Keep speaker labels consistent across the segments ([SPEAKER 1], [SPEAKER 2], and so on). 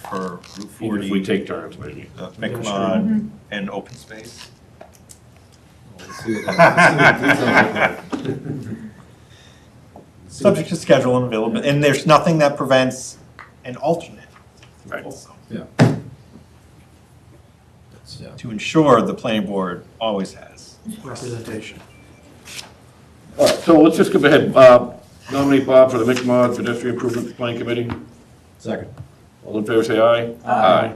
[SPEAKER 1] for Route
[SPEAKER 2] Even if we
[SPEAKER 1] forty,
[SPEAKER 2] take turns, maybe.
[SPEAKER 1] uh,
[SPEAKER 3] Mm-hmm.
[SPEAKER 1] McMahon, and open space.
[SPEAKER 4] Let's see what that- let's see what that looks like.
[SPEAKER 5] Subject to schedule and availability, and there's nothing that prevents an alternate
[SPEAKER 2] Right.
[SPEAKER 5] also,
[SPEAKER 4] That's- yeah.
[SPEAKER 5] to ensure the planning board always has.
[SPEAKER 6] representation.
[SPEAKER 2] All right, so let's just go ahead. Bob, nominate Bob for the McMod Pedestrian Improvement Plan Committee.
[SPEAKER 4] Second.
[SPEAKER 2] All in favor, say aye.
[SPEAKER 3] Aye.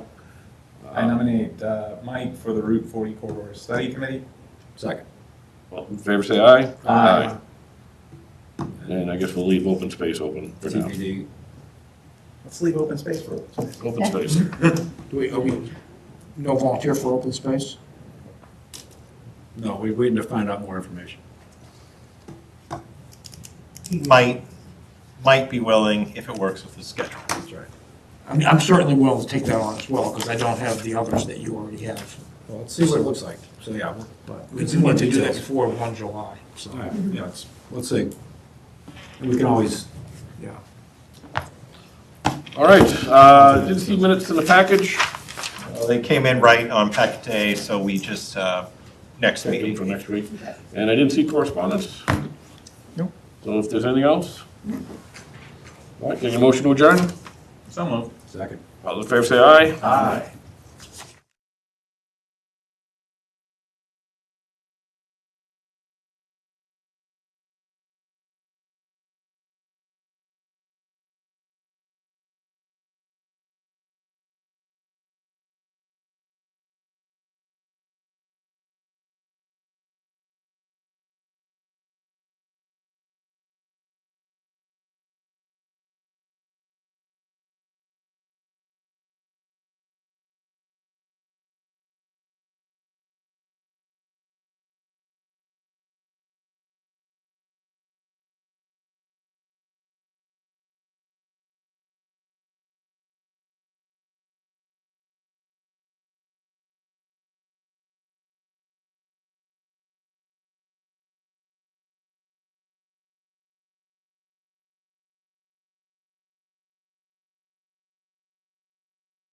[SPEAKER 3] I nominate uh, Mike for the Route 40 Corridor Study Committee.
[SPEAKER 4] Second.
[SPEAKER 2] All in favor, say aye.
[SPEAKER 3] Aye.
[SPEAKER 2] And I guess we'll leave open space open for now.
[SPEAKER 4] TBD.
[SPEAKER 3] Let's leave open space for open space.
[SPEAKER 2] Open space.
[SPEAKER 6] Do we, are we, no volunteer for open space?
[SPEAKER 4] No, we're waiting to find out more information.
[SPEAKER 5] Might, might be willing if it works with the schedule.
[SPEAKER 4] That's right.
[SPEAKER 6] I mean, I'm certainly willing to take that on as well, because I don't have the others that you already have.
[SPEAKER 4] Well, let's see what it looks like. So, yeah, we'll-
[SPEAKER 6] But we do need to do that before 1 July, so,
[SPEAKER 4] all right, yeah, let's, let's see. And we can always,
[SPEAKER 6] yeah.
[SPEAKER 2] All right, uh, did see minutes in the package?
[SPEAKER 5] Well, They came in right on packet day, so we just, uh, next
[SPEAKER 2] Take them
[SPEAKER 5] meeting.
[SPEAKER 2] for next week. And I didn't see correspondence.
[SPEAKER 5] Nope.
[SPEAKER 2] So if there's anything else? All right, getting a motion to adjourn?
[SPEAKER 3] So moved.
[SPEAKER 4] second.
[SPEAKER 2] All in favor, say aye.
[SPEAKER 3] Aye.